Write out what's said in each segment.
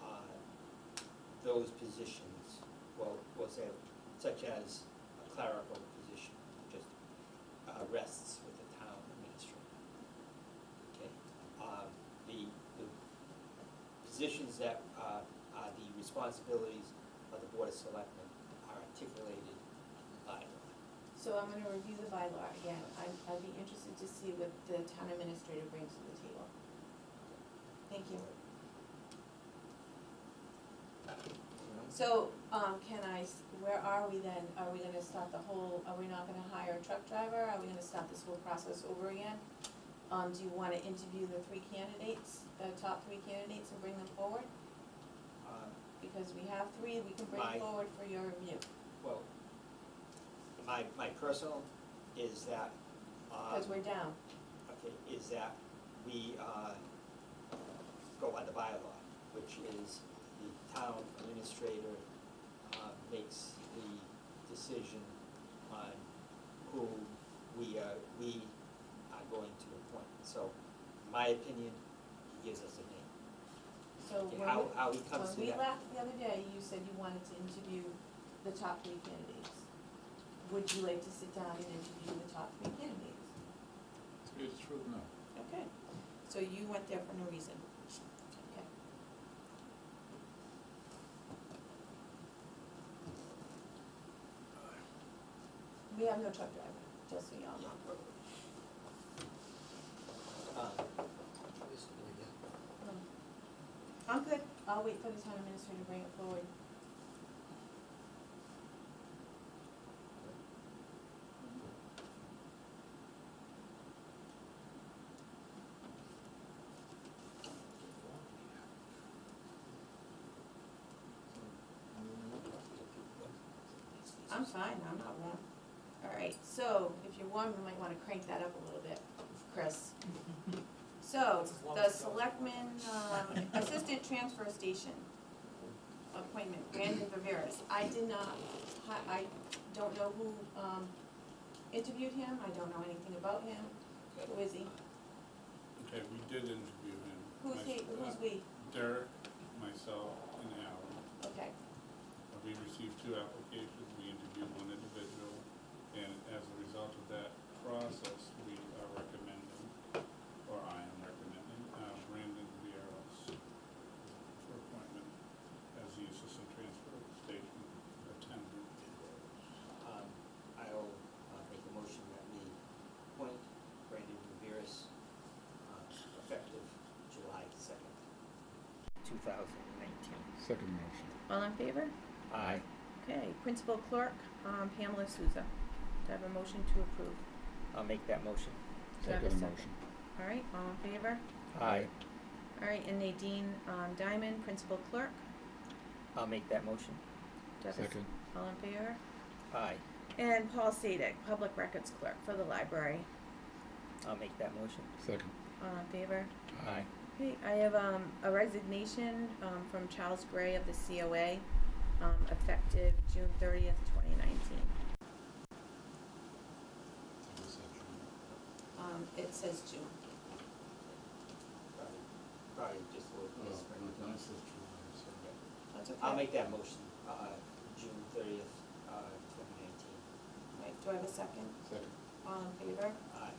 uh, those positions, well, was that, such as a clerical position, just uh, rests with the town administrator. Okay, um, the, the positions that uh, are the responsibilities of the Board of Selectmen are articulated in the bylaw. So I'm gonna review the bylaw again. I'd, I'd be interested to see what the town administrator brings to the table. Thank you. So, um, can I, s- where are we then? Are we gonna start the whole, are we not gonna hire a truck driver? Are we gonna start this whole process over again? Um, do you wanna interview the three candidates, the top three candidates and bring them forward? Uh, Because we have three, we can bring My- forward for your review. Well, my, my personal is that, um, Cause we're down, okay, is that we, uh, go by the bylaw, which is the town administrator, uh, makes the decision on who we, uh, we are going to appoint. So, my opinion, he gives us a name. so Okay, when How, we, how he comes to when we that. left the other day, you said you wanted to interview the top three candidates. Would you like to sit down and interview the top three candidates? It's true, no. Okay, so you went there for no reason? Okay. We have no truck driver, just so y'all know. Um, I'm good, I'll wait for the town administrator to bring it forward. I'm fine, I'm not warm. All right, so if you're warm, you might wanna crank that up a little bit, Chris. So, the selectmen, um, assistant transfer station appointment, Brandon Viveras. I did not, hi- I don't know who, um, interviewed him, I don't know anything about him. Who is he? Okay, we did interview him. Who's My- he, who's uh, we? Derek, myself, and Alan. Okay, Uh, We received two applications, we interviewed one individual, and as a result of that process, we are recommending, or I am recommending, uh, Brandon Vieros for appointment as the assistant transfer station attendant. Um, I'll uh, make a motion that we appoint Brandon Viveras, uh, effective July second, two thousand nineteen. Second motion. all in favor? Aye. Okay, principal clerk, um, Pamela Souza. Do I have a motion to approve? I'll make that motion. Do I have a second? All right, all in favor? Aye. All right, and Nadine, um, Diamond, principal clerk. I'll make that motion. Do I have a s- All in favor? Aye. And Paul Sadek, public records clerk for the library. I'll make that motion. Second. All in favor? Aye. Okay, I have, um, a resignation, um, from Charles Gray of the COA, um, effective June thirtieth, twenty nineteen. Um, it says June. Probably, probably just a little whispering. That's okay. I'll make that motion, uh, June thirtieth, uh, twenty nineteen. Right, do I have a second? Second. All in favor? Aye. All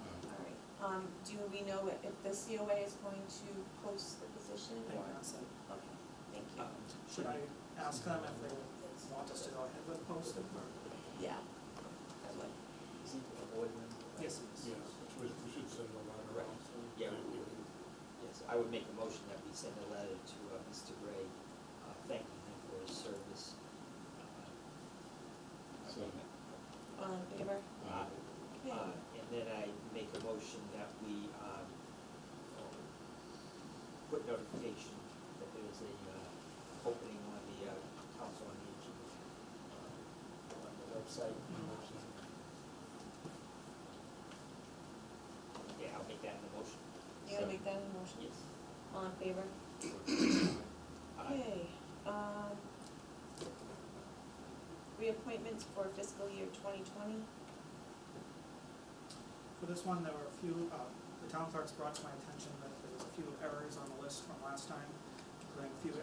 right, um, do we know if if the COA is going to post the position They or? went outside. Okay, thank you. Um, Should I ask them if they want us to go ahead with posting or? Yeah. I would. Is he a board member? Yes, it Yes, is. we we should send a letter Right. out. Yeah, we- we- yes, I would make a motion that we send a letter to uh, Mr. Gray, uh, thanking him for his service. Uh, So- All in favor? Uh, Okay. uh, And then I make a motion that we um, um, put notification that there is a uh, opening on the uh, council on aging uh, on the website. Yeah, I'll make that in the motion. You gonna make that a motion? Yes. All in favor? Aye. Okay, um, reappointments for fiscal year twenty twenty. For this one, there were a few, uh, the town clerks brought to my attention that there was a few errors on the list from last time, including a few